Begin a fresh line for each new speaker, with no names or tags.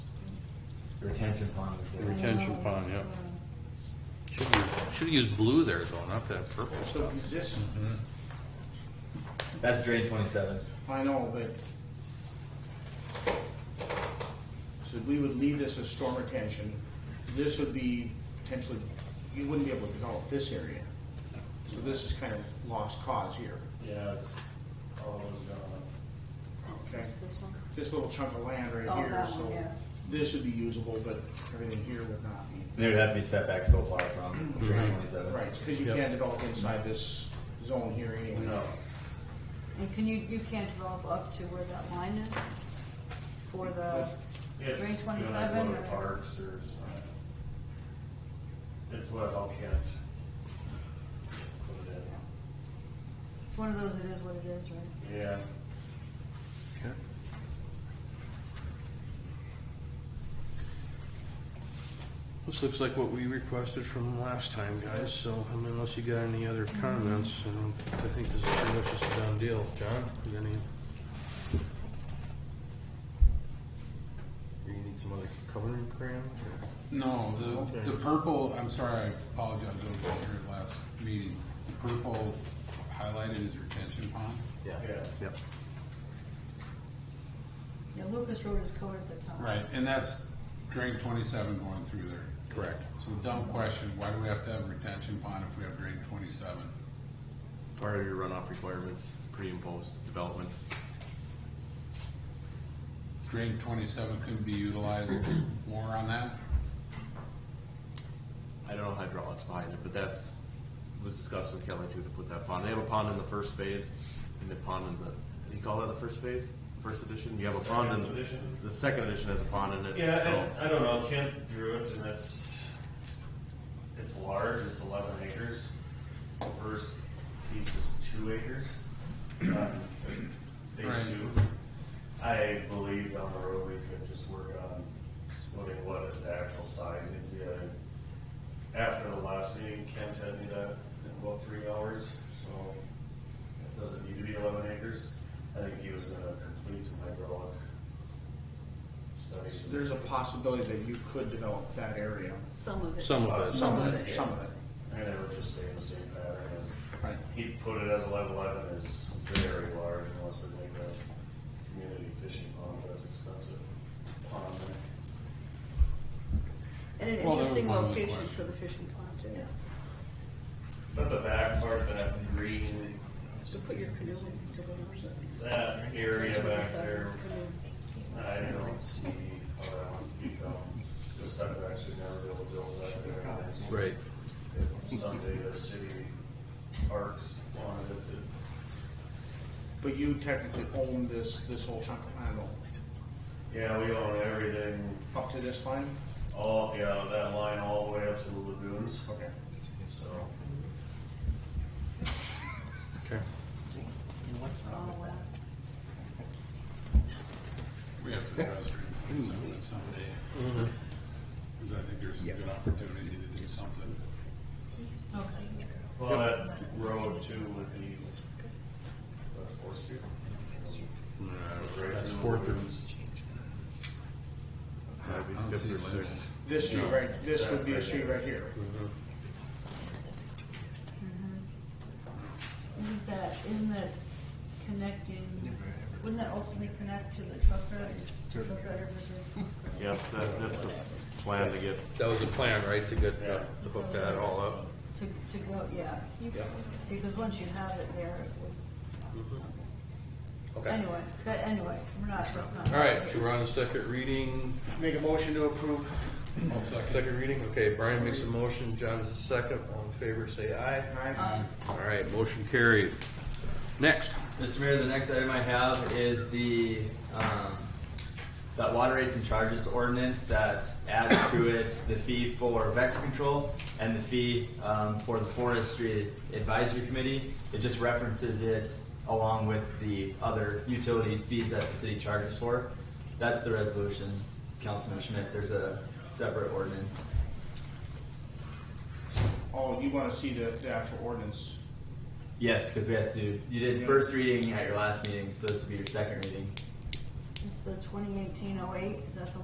The retention pond is there.
Retention pond, yeah. Should use, should use blue there though, not that purple
So
stuff.
is this,
That's drain twenty-seven.
I know, but. So we would leave this as storm retention, this would be potentially, you wouldn't be able to develop this area. So this is kind of lost cause here.
Yeah, it's all those gone.
Okay.
Just this one?
This little chunk of land right
Oh,
here,
that one,
so
yeah.
this would be usable, but everything here would not be.
They would have to be set back so far from
Mm-hmm.
drain twenty-seven.
Right, because you
Yep.
can't develop inside this zone here anyway.
No,
And can you, you can't develop up to where that line is for the
it's,
drain
when I go
twenty-seven?
to parks, there's, uh, it's what, how can't. Put it
It's one of those, it is what it is, right?
in, yeah,
This looks like what we requested from last time, guys, so I mean, unless you got any other comments, I don't- I think this is pretty much just a done deal. John, you got any? Or you need some other coloring crayons or?
No,
Okay.
the, the purple, I'm sorry, I apologize, I was here at last meeting. The purple highlighted is retention pond.
yeah.
Yep.
Yeah, Lucas Road is colored at the top.
Right, and that's drain twenty-seven going through there.
Correct.
So dumb question, why do we have to have retention pond if we have drain twenty-seven?
part of your runoff requirements, pre and post development.
Drain twenty-seven couldn't be utilized more on that?
I don't know hydraulics behind it, but that's, was discussed with Kelly too, to put that pond. They have a pond in the first phase and the pond in the, you call that the first phase? First edition? You have a pond
Second
in,
edition.
the second edition has a pond in it, so.
Yeah, I, I don't know, Kent drew it and it's, it's large, it's eleven acres. The first piece is two acres. um, Phase
Right.
two. I believe down the road we could just work on splitting what the actual size needs to be. I- After the last meeting, Kent had me that in about three hours, so it doesn't need to be eleven acres. I think he was gonna complete some hydraulic studies.
There's a possibility that you could develop that area.
Some of it.
Some of it.
Some of it, some of it.
And it would just stay in the same pattern.
Right.
He put it as eleven eleven is very large unless we make a community fishing pond that's expensive pond there.
And an
Well, that was
interesting
one of the
location
questions.
for the fishing pond, too.
But the back part, that green,
So put your canoe in to go over it.
that area back
27
there,
canoe.
I don't see how that would become, the setbacks would never be able to build that there.
Right.
If Someday the city parks wanted it to
But you technically own this, this whole chunk of land
Yeah, we own everything,
up to this line?
all, yeah, that line all the way up to the lagoons,
Okay.
so.
Okay.
Oh, wow.
We have to address drain twenty-seven someday. Cause I think there's some good opportunity to do something.
Well, that road too would be, what, Fourth Street? Mm,
That's fourth or,
that'd be
I don't
fifth
see
or
why
sixth.
not.
This street right, this would be a street right here.
Isn't Mm-hmm. that, isn't that connecting, wouldn't that ultimately connect to the truck route, truck route versus?
Yes, that, that's the plan to get,
that was the plan, right, to get, uh, to hook that all up?
To, to go, yeah.
Yeah.
Because once you have it there, it would,
Mm-hmm. Okay.
anyway, but anyway, we're not, that's not.
All right, so we're on the second reading.
Make a motion to approve.
I'll second.
Second reading, okay, Brian makes a motion, John is the second, all in favor, say aye.
Um,
Aye.
All right, motion carried. Next.
Mr. Mayor, the next item I have is the, um, that water rates and charges ordinance that adds to it the fee for vector control and the fee, um, for the forestry advisory committee. It just references it along with the other utility fees that the city charges for. That's the resolution, Councilman Schmidt, there's a separate ordinance.
Oh, you wanna see the, the actual ordinance?
Yes, because we have to, do you did first reading at your last meeting, so this would be your second reading.
It's the twenty eighteen oh eight, is that the